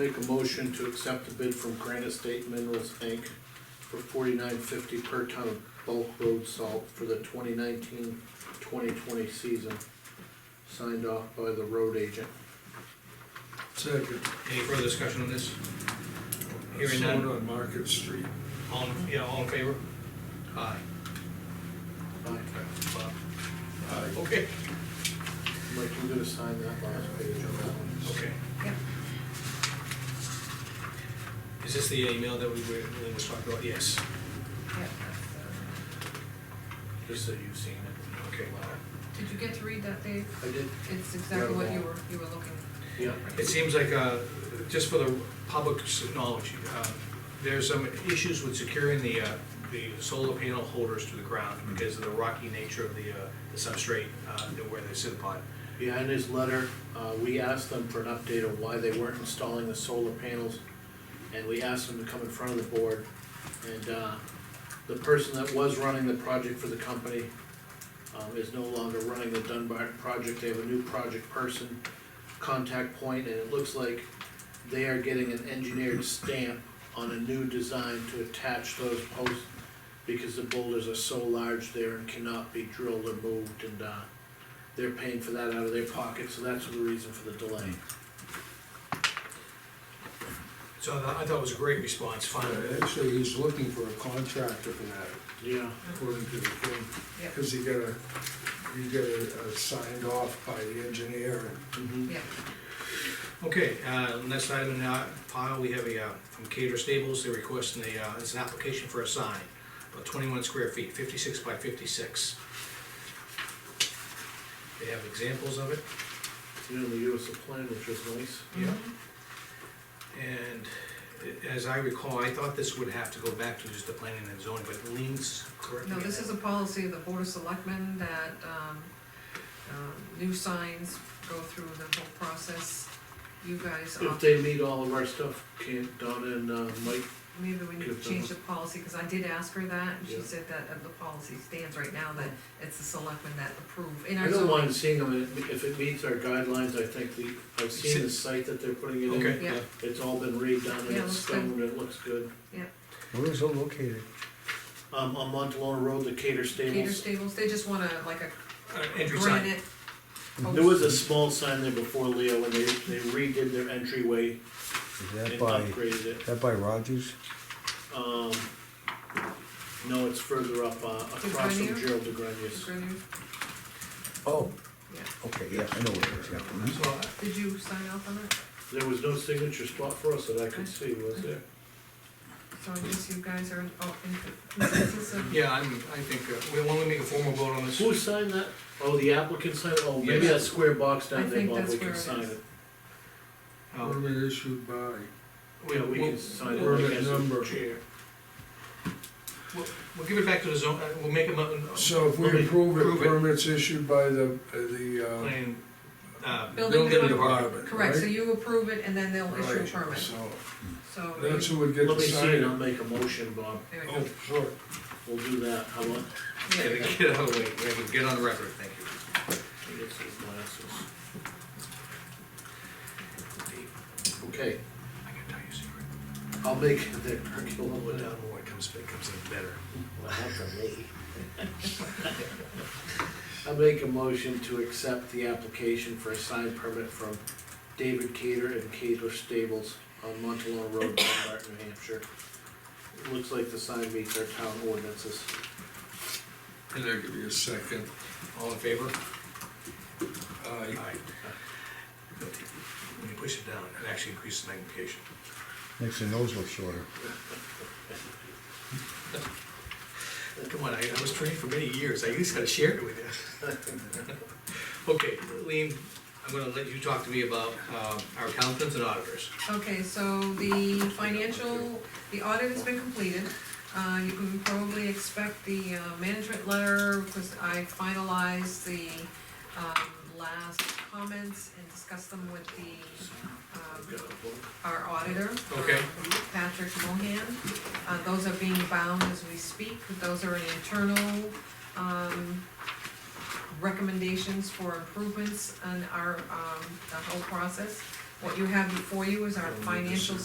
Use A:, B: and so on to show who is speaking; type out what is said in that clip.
A: Make a motion to accept the bid from Granite State Minerals Inc. for forty-nine fifty per ton of bulk road salt for the 2019-2020 season. Signed off by the road agent.
B: Second.
C: Any further discussion on this? Hearing none.
B: Sold on Market Street.
C: All, in- yeah, all in favor? Aye.
A: Aye.
C: Bob?
B: Aye.
C: Okay.
A: Mike, you gonna sign that last page on that one?
C: Okay.
D: Yep.
C: Is this the email that we were, we were talking about? Yes.
D: Yep, that's
A: Just so you've seen it.
C: Okay.
D: the- Did you get to read that, Dave?
A: I did,
D: It's exactly what you were, you were looking.
A: yeah.
C: It seems like, uh, just for the public's knowledge, uh, there's some issues with securing the, uh, the solar panel holders to the ground
B: Mm-hmm.
C: because of the rocky nature of the, uh, the substrate, uh, where they sit upon.
A: Yeah, in his letter, uh, we asked them for an update on why they weren't installing the solar panels. And we asked them to come in front of the board. And, uh, the person that was running the project for the company, um, is no longer running the Dunbar project. They have a new project person, contact point, and it looks like they are getting an engineered stamp on a new design to attach those posts because the boulders are so large there and cannot be drilled or moved and, uh, they're paying for that out of their pocket, so that's the reason for the delay.
C: So I thought- I thought it was a great response, finally.
B: Uh, Actually, he's looking for a contractor for that,
A: Yeah,
B: according to the thing.
D: Yep.
B: Cause he got a, he got a, a signed off by the engineer.
A: mhm.
D: Yep,
C: Okay, uh, next item in our pile, we have a, uh, from Cater Stables, they're requesting a, uh, it's an application for a sign, about twenty-one square feet, fifty-six by fifty-six. They have examples of it,
A: You know, they gave us a plan, which was nice.
D: Mm-hmm.
C: yeah. And i- as I recall, I thought this would have to go back to just the planning and zoning, but Lean's correct.
D: no, this is a policy of the Board of Selectmen that, um, um, new signs go through the whole process. You guys,
A: If
D: opt-
A: they meet all of our stuff, can't Donna and uh, Mike,
D: maybe we need to
A: give
D: change the
A: them-
D: policy, because I did ask her that, and she
A: Yeah.
D: said that uh, the policy stands right now, that it's the selectmen that approve. In
A: I
D: our
A: don't
D: zoning,
A: mind seeing them, if if it meets our guidelines, I think the, I've seen the site that they're putting it in.
C: Okay.
D: Yeah.
A: It's all been redone and
D: Yeah,
A: it's
D: looks good.
A: stoned, and it looks good.
E: Where is it located?
A: Um, on Montalona Road, the Cater
D: Cater
A: Stables,
D: Stables, they just want a, like a
C: Uh, Entry sign,
D: granite. Oh,
A: there was a small sign there before Leo, and they, they redid their entryway
E: Is
A: and
E: that by,
A: upgraded it.
E: that by Rogers?
A: Um, no, it's further up, uh, across from
D: Grenier?
A: Gerald de Grandiers.
D: granite,
E: Oh,
D: yeah.
E: okay, yeah, I know where it is, yeah. mhm.
C: so, uh,
D: Did you sign off on it?
A: There was no signature spot for us that I could see, was there?
D: So I guess you guys are all in consensus of,
C: yeah, I'm, I think, uh, we want to make a formal vote on this.
A: Who signed that? Oh, the applicant signed, it? oh, maybe
C: Yes.
A: that square box
D: I
A: down there,
D: think
A: Bob,
D: that's
A: we can
D: where it
A: sign
D: is.
A: it.
C: Uh,
B: Permit issued by,
C: we-
A: Yeah, we
C: we'll-
A: can sign it.
B: we're
A: like
B: at
A: as a
B: number.
A: chair.
C: We'll, we'll give it back to the zone, uh, we'll make a mo-
D: Oh.
B: so if we
C: Let me
B: approve
C: prove
B: it,
C: it.
B: permits issued by the, uh, the,
C: plan, uh,
B: uh,
D: Building
B: building
D: department.
B: department,
D: correct, so
B: right?
D: you approve it and then they'll issue a
B: Right,
D: permit,
B: So,
D: so.
B: that's
D: you-
B: who would get
A: Let
B: the
A: me see it, I'll
B: sign.
A: make a motion, Bob,
D: there you
B: Oh,
D: go.
B: sure.
A: we'll do that, how about,
C: yeah,
D: Yeah,
C: they
D: you
C: get
D: go.
C: it out of the way, we have to get on the record, thank you.
A: I get some glasses. Okay,
C: I gotta tell you a secret,
A: I'll make the curriculum
C: Well,
A: without,
C: down the way comes, it comes in better.
A: well, that's a me. I make a motion to accept the application for a sign permit from David Cater and Cater Stables on Montalona Road, Dunbar, New Hampshire. It Looks like the sign meets our town ordinances.
B: And I'll give you a second. Uh,
C: All in favor?
B: Aye.
C: When you push it down, it actually increases magnification.
E: Makes the nose look shorter.
C: Come on, I, I was trained for many years, I at least gotta share it with you. Okay, Lean, I'm gonna let you talk to me about, um, our accountants and auditors.
D: Okay, so the financial, the audit has been completed. Uh, you can probably expect the uh, management letter, because I finalized the, um, last comments and discussed them with the, um,
A: Got a book.
D: our auditor.
C: Okay.
D: uh, Patrick Mohan. Uh, those are being bound as we speak, those are internal, um, recommendations for improvements on our, um, the whole process. What you have before you is our financial